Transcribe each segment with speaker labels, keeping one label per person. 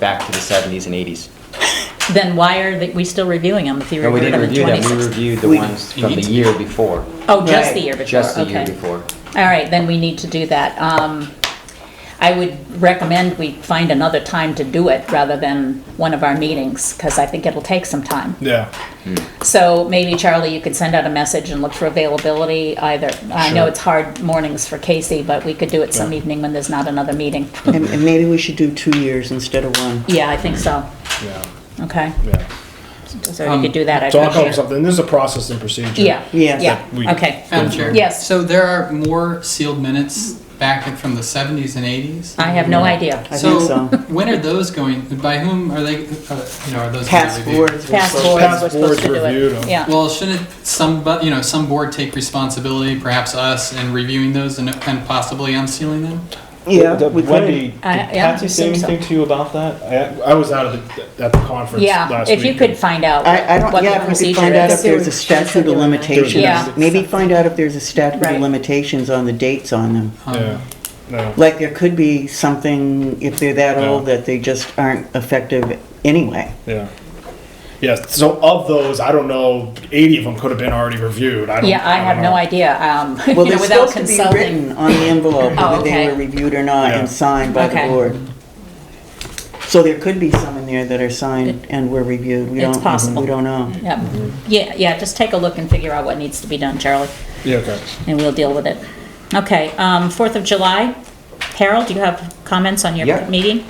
Speaker 1: back to the 70s and 80s.
Speaker 2: Then why are they- we still reviewing them if you
Speaker 1: No, we
Speaker 2: reviewed
Speaker 1: didn't
Speaker 2: them in
Speaker 1: review them, we
Speaker 2: 26?
Speaker 1: reviewed the
Speaker 3: We-
Speaker 1: ones from the year before,
Speaker 2: Oh, just the
Speaker 3: Right.
Speaker 2: year before, okay.
Speaker 1: just the year before.
Speaker 2: All right, then we need to do that. Um, I would recommend we find another time to do it rather than one of our meetings, because I think it'll take some time.
Speaker 4: Yeah.
Speaker 2: So maybe Charlie, you could send out a message and look for availability either. I know
Speaker 1: Sure.
Speaker 2: it's hard mornings for Casey, but we could do it some evening when there's not another meeting.
Speaker 3: And, and maybe we should do two years instead of one.
Speaker 2: Yeah, I think so.
Speaker 4: Yeah.
Speaker 2: Okay,
Speaker 4: Yeah.
Speaker 2: so if you could do that, I
Speaker 4: So I'll come up
Speaker 2: appreciate
Speaker 4: with
Speaker 2: it.
Speaker 4: something. This is a process and procedure.
Speaker 2: Yeah,
Speaker 3: Yeah.
Speaker 4: We-
Speaker 2: yeah, okay.
Speaker 5: Madam Chair?
Speaker 2: Yes.
Speaker 5: So there are more sealed minutes back from the 70s and 80s?
Speaker 2: I have no idea.
Speaker 3: I think so.
Speaker 5: when are those going, by whom are they, uh, you know, are those? going to
Speaker 3: Pass
Speaker 5: be reviewed?
Speaker 3: boards.
Speaker 2: Past boards were
Speaker 4: Past
Speaker 2: supposed
Speaker 4: boards
Speaker 2: to do
Speaker 4: reviewed 'em.
Speaker 2: it. Yeah,
Speaker 5: Well, shouldn't some, bu- you know, some board take responsibility, perhaps us, in reviewing those and and possibly unsealing them?
Speaker 3: Yeah,
Speaker 6: The-
Speaker 3: we
Speaker 6: Wendy, did
Speaker 3: could.
Speaker 2: I- Uh, yeah, I
Speaker 6: Patsy say
Speaker 2: assume so.
Speaker 6: anything to you about that?
Speaker 4: I, I was out of the, at the conference
Speaker 2: yeah,
Speaker 4: last week.
Speaker 2: if you could find out
Speaker 3: I, I don't,
Speaker 2: what the
Speaker 3: yeah, if we could
Speaker 2: procedure
Speaker 3: find out if
Speaker 2: is.
Speaker 3: there's a statute of
Speaker 2: Yeah.
Speaker 3: limitations. Maybe find out if there's a statute
Speaker 2: Right.
Speaker 3: of limitations on the dates on them.
Speaker 5: Um,
Speaker 4: Yeah. No.
Speaker 3: Like, there could be something, if they're that
Speaker 4: Yeah.
Speaker 3: old, that they just aren't effective anyway.
Speaker 4: Yeah. Yeah. So of those, I don't know. Eighty of them could have been already reviewed. I don't.
Speaker 2: Yeah, I
Speaker 4: don't
Speaker 2: have
Speaker 4: know.
Speaker 2: no idea, um,
Speaker 3: Well,
Speaker 2: you
Speaker 3: they're
Speaker 2: know, without
Speaker 3: supposed to be
Speaker 2: consulting.
Speaker 3: written on the envelope,
Speaker 2: Oh,
Speaker 3: whether
Speaker 2: okay.
Speaker 3: they were reviewed or not,
Speaker 4: Yeah.
Speaker 3: and signed by the
Speaker 2: Okay.
Speaker 3: board. So there could be some in there that are signed and were reviewed. We
Speaker 2: It's
Speaker 3: don't,
Speaker 2: possible.
Speaker 3: we don't know.
Speaker 2: Yep. Yeah, yeah, just take a look and figure out what needs to be done, Charlie,
Speaker 4: Yeah. Okay.
Speaker 2: and we'll deal with it. Okay, um, Fourth of July, Harold, do you have comments on your
Speaker 1: Yeah.
Speaker 2: meeting?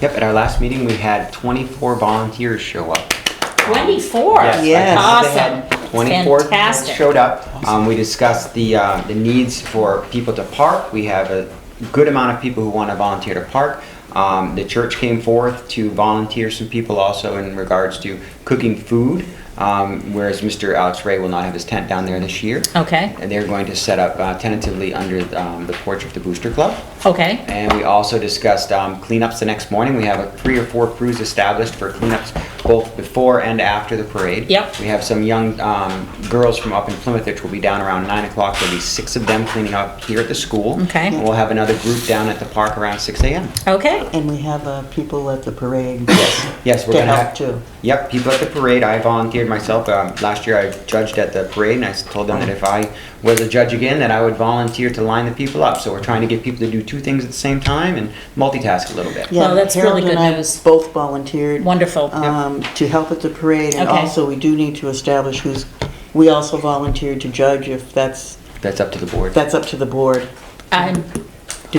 Speaker 1: Yep, at our last meeting, we had 24 volunteers show up.
Speaker 2: Twenty-four,
Speaker 1: Yes, I
Speaker 3: Yes.
Speaker 1: counted them.
Speaker 2: Awesome.
Speaker 1: Twenty-four people
Speaker 2: Fantastic.
Speaker 1: showed up. Um, we discussed the, uh, the needs for people to park. We have a good amount of people who want to volunteer to park. Um, the church came forth to volunteer some people also in regards to cooking food, um, whereas Mr. Alex Ray will not have his tent down there this year.
Speaker 2: okay,
Speaker 1: And they're going to set up uh, tentatively under um, the porch of the Booster Club.
Speaker 2: okay,
Speaker 1: And we also discussed um, cleanups the next morning. We have uh, three or four crews established for cleanups both before and after the parade.
Speaker 2: Yep.
Speaker 1: We have some young um, girls from up in Plymouth, which will be down around 9 o'clock. There'll be six of them cleaning up here at the school.
Speaker 2: Okay.
Speaker 1: And we'll have another group down at the park around 6 a.m.
Speaker 2: okay,
Speaker 3: And we have uh, people at the parade
Speaker 2: Oh,
Speaker 1: Yes, we're
Speaker 3: to
Speaker 1: going to
Speaker 3: help
Speaker 1: have.
Speaker 3: too.
Speaker 1: Yep, people at the parade. I volunteered myself. Um, last year I judged at the parade and I s- told them that if I was a judge again, that I would volunteer to line the people up. So we're trying to get people to do two things at the same time and multitask a little bit.
Speaker 3: Yeah,
Speaker 2: Well, that's
Speaker 3: Harold
Speaker 2: really good
Speaker 3: and I
Speaker 2: news.
Speaker 3: Both volunteered.
Speaker 2: wonderful,
Speaker 3: um, to help at the parade, and
Speaker 2: Okay.
Speaker 3: also we do need to establish who's, we also volunteered to judge if that's,
Speaker 1: That's up to the board.
Speaker 3: that's up to the board.
Speaker 2: I'm,
Speaker 3: Do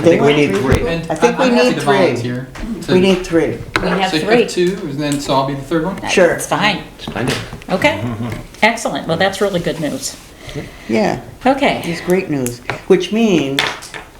Speaker 1: I
Speaker 3: they
Speaker 1: think we
Speaker 3: want
Speaker 1: need three.
Speaker 5: And
Speaker 3: I think
Speaker 5: I'm
Speaker 3: we
Speaker 5: happy
Speaker 3: need
Speaker 5: to
Speaker 3: three.
Speaker 5: volunteer to-
Speaker 3: We need three.
Speaker 2: we have
Speaker 5: So you
Speaker 2: three.
Speaker 5: pick two, and then, so I'll be the third one?
Speaker 3: Sure.
Speaker 2: It's fine,
Speaker 1: Splendid.
Speaker 2: okay, excellent, well, that's really good news,
Speaker 3: Yeah,
Speaker 2: okay,
Speaker 3: it's great news, which means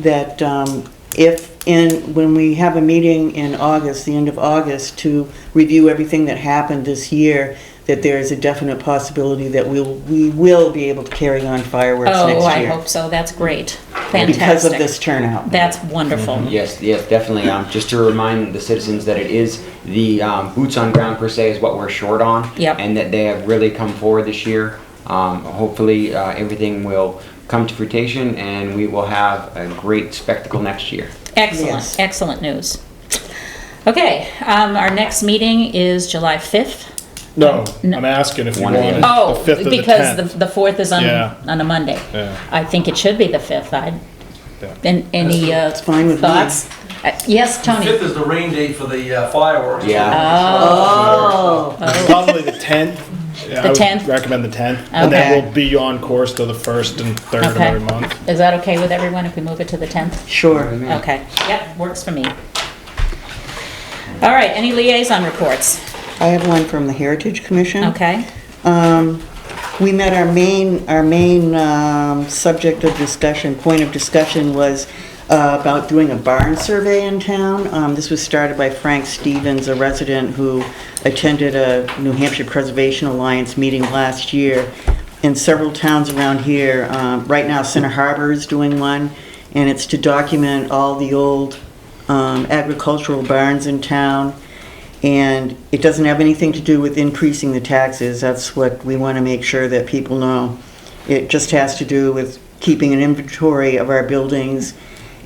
Speaker 3: that um, if, in, when we have a meeting in August, the end of August, to review everything that happened this year, that there is a definite possibility that we'll, we will be able to carry on fireworks next year.
Speaker 2: oh, I hope so, that's great, fantastic.
Speaker 3: Because of this Mhm. turnout.
Speaker 2: That's wonderful.
Speaker 1: Yes, yes, definitely. Um, just to remind the citizens that it is the um, boots on ground per se is what we're short on.
Speaker 2: Yep.
Speaker 1: And that they have really come forward this year. Um, hopefully, uh, everything will come to fruition and we will have a great spectacle next year.
Speaker 2: Excellent,
Speaker 3: Yes.
Speaker 2: excellent news. Okay, um, our next meeting is July 5th.
Speaker 4: No,
Speaker 2: No.
Speaker 4: I'm asking if you
Speaker 1: One
Speaker 4: want
Speaker 1: of
Speaker 4: it
Speaker 1: the-
Speaker 2: Oh,
Speaker 4: the fifth or the
Speaker 2: because the,
Speaker 4: tenth.
Speaker 2: the 4th is on,
Speaker 4: Yeah.
Speaker 2: on a Monday.
Speaker 4: Yeah.
Speaker 2: I think it should be the 5th. I,
Speaker 4: Yeah.
Speaker 2: and any uh,
Speaker 3: fine with me.
Speaker 2: thoughts? Uh, Yes, Tony?
Speaker 7: Fifth is the rain date for the uh, fireworks.
Speaker 1: Yeah.
Speaker 3: Oh.
Speaker 4: Probably the tenth.
Speaker 2: The
Speaker 4: Yeah, I would
Speaker 2: 10th?
Speaker 4: Recommend the tenth, and then
Speaker 2: Okay.
Speaker 4: we'll be on course to the first and third of
Speaker 2: Okay.
Speaker 4: every month.
Speaker 2: Is that okay with everyone if we move it to the 10th?
Speaker 3: Sure.
Speaker 2: Okay, yep, works for me. All right, any liaison reports?
Speaker 3: I have one from the Heritage Commission.
Speaker 2: Okay,
Speaker 3: Um, We met our main, our main um, subject of discussion, point of discussion was uh, about doing a barn survey in town. Um, This was started by Frank Stevens, a resident who attended a New Hampshire Preservation Alliance meeting last year. In several towns around here, um, right now Center Harbor is doing one, and it's to document all the old um, agricultural barns in town. And it doesn't have anything to do with increasing the taxes, that's what we want to make sure that people know. It just has to do with keeping an inventory of our buildings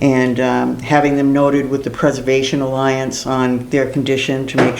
Speaker 3: and um, having them noted with the Preservation Alliance on their condition to make